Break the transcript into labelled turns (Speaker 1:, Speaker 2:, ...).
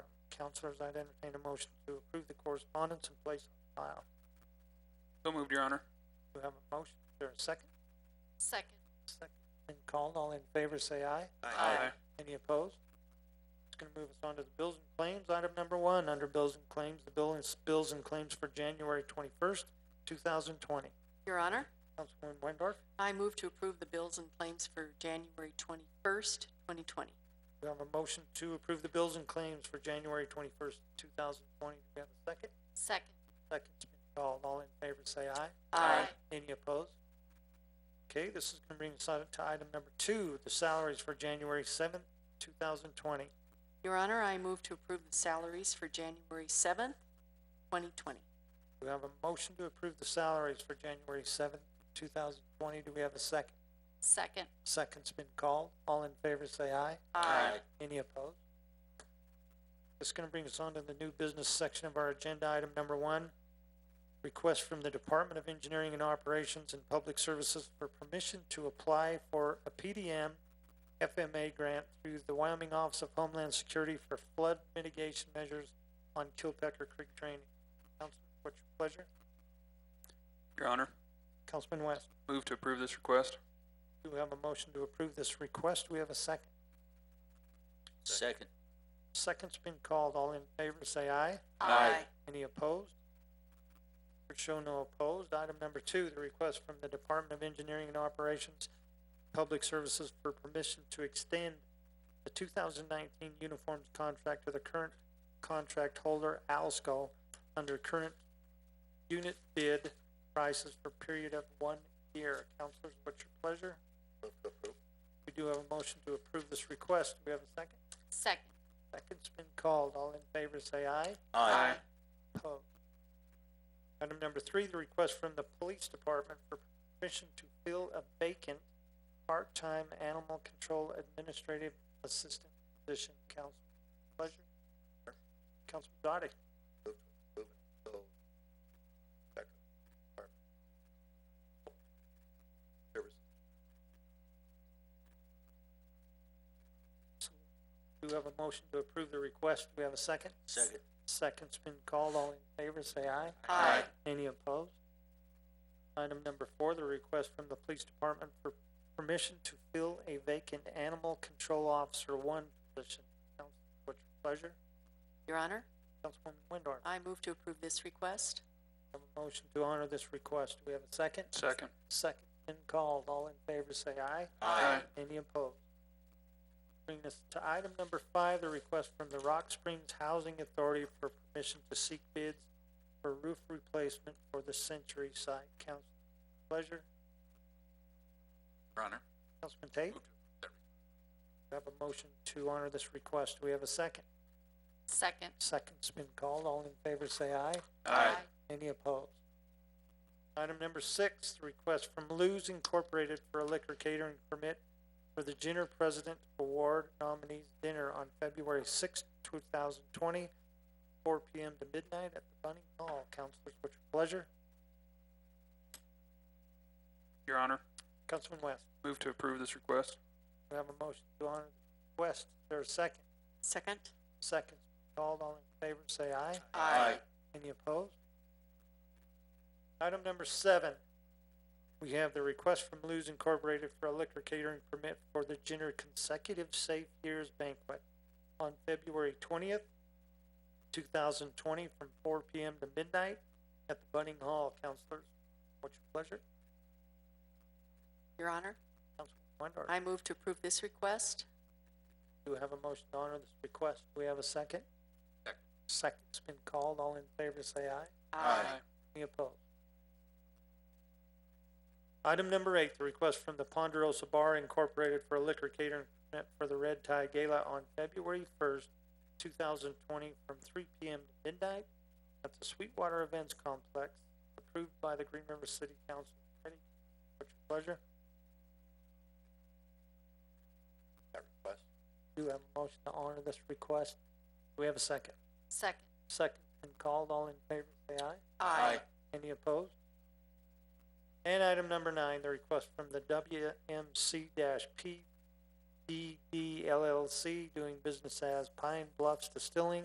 Speaker 1: Counselors, I'd entertain a motion to approve the correspondence and place on file.
Speaker 2: So moved, Your Honor.
Speaker 1: Do we have a motion? Is there a second?
Speaker 3: Second.
Speaker 1: Second been called. All in favor, say aye.
Speaker 3: Aye.
Speaker 1: Any opposed? It's gonna move us on to the bills and claims. Item number one, under bills and claims, the bill is bills and claims for January twenty-first, two thousand twenty.
Speaker 3: Your Honor,
Speaker 1: Councilwoman Wendorf,
Speaker 3: I move to approve the bills and claims for January twenty-first, twenty twenty.
Speaker 1: we have a motion to approve the bills and claims for January twenty-first, two thousand twenty. Do we have a second?
Speaker 3: Second.
Speaker 1: Second's been called. All in favor, say aye.
Speaker 3: Aye.
Speaker 1: Any opposed? Okay, this is gonna bring us on to item number two, the salaries for January seventh, two thousand twenty.
Speaker 3: Your Honor, I move to approve the salaries for January seventh, twenty twenty.
Speaker 1: We have a motion to approve the salaries for January seventh, two thousand twenty. Do we have a second?
Speaker 3: Second.
Speaker 1: Second's been called. All in favor, say aye.
Speaker 3: Aye.
Speaker 1: Any opposed? This is gonna bring us on to the new business section of our agenda, item number one. Request from the Department of Engineering and Operations and Public Services for permission to apply for a PDM FMA grant through the Wyoming Office of Homeland Security for flood mitigation measures on Kilpecker Creek Drainage. Councilman, what's your pleasure?
Speaker 2: Your Honor,
Speaker 1: Councilman West,
Speaker 2: move to approve this request.
Speaker 1: do we have a motion to approve this request? Do we have a second?
Speaker 4: Second.
Speaker 1: Second's been called. All in favor, say aye.
Speaker 2: Aye.
Speaker 1: Any opposed? There show no opposed. Item number two, the request from the Department of Engineering and Operations, Public Services for permission to extend the two thousand nineteen uniforms contract to the current contract holder, Alsco, under current unit bid prices for a period of one year. Counselors, what's your pleasure? We do have a motion to approve this request. Do we have a second?
Speaker 3: Second.
Speaker 1: Second's been called. All in favor, say aye.
Speaker 4: Aye.
Speaker 1: Opposed. Item number three, the request from the police department for permission to fill a vacant part-time animal control administrative assistant position. Council, pleasure. Councilman Doty, do you have a motion to approve the request? Do we have a second?
Speaker 4: Second.
Speaker 1: Second's been called. All in favor, say aye.
Speaker 3: Aye.
Speaker 1: Any opposed? Item number four, the request from the police department for permission to fill a vacant animal control officer one position. Council, what's your pleasure?
Speaker 3: Your Honor,
Speaker 1: Councilwoman Windorf,
Speaker 3: I move to approve this request.
Speaker 1: have a motion to honor this request. Do we have a second?
Speaker 2: Second.
Speaker 1: Second been called. All in favor, say aye.
Speaker 2: Aye.
Speaker 1: Any opposed? Bring us to item number five, the request from the Rock Springs Housing Authority for permission to seek bids for roof replacement for the Century site. Council, pleasure.
Speaker 2: Your Honor,
Speaker 1: Councilman Tate?
Speaker 2: Move to-
Speaker 1: We have a motion to honor this request. Do we have a second?
Speaker 3: Second.
Speaker 1: Second's been called. All in favor, say aye.
Speaker 2: Aye.
Speaker 1: Any opposed? Item number six, the request from Lou's Incorporated for a liquor catering permit for the Jenner President Award nominees dinner on February sixth, two thousand twenty, four P M to midnight at the Bunny Hall. Councilors, what's your pleasure?
Speaker 2: Your Honor,
Speaker 1: Councilman West,
Speaker 2: move to approve this request.
Speaker 1: we have a motion to honor the request. Is there a second?
Speaker 3: Second.
Speaker 1: Second. Called, all in favor, say aye.
Speaker 4: Aye.
Speaker 1: Any opposed? Item number seven, we have the request from Lou's Incorporated for a liquor catering permit for the Jenner Consecutive Safe Years Banquet on February twentieth, two thousand twenty, from four P M to midnight at the Bunning Hall. Counselors, what's your pleasure?
Speaker 3: Your Honor,
Speaker 1: Councilman Windor,
Speaker 3: I move to approve this request.
Speaker 1: do you have a motion to honor this request? Do we have a second?
Speaker 2: Second.
Speaker 1: Second's been called. All in favor, say aye.
Speaker 4: Aye.
Speaker 1: Any opposed? Item number eight, the request from the Ponderosa Bar Incorporated for a liquor catering permit for the Red Tie Gala on February first, two thousand twenty, from three P M to midnight at the Sweetwater Events Complex, approved by the Green River City Council. Committee. What's your pleasure?
Speaker 4: That request?
Speaker 1: Do we have a motion to honor this request? Do we have a second?
Speaker 3: Second.
Speaker 1: Second been called. All in favor, say aye. Any opposed? And item number nine, the request from the WMC dash E PDD LLC doing business as Pine Bluffs Distilling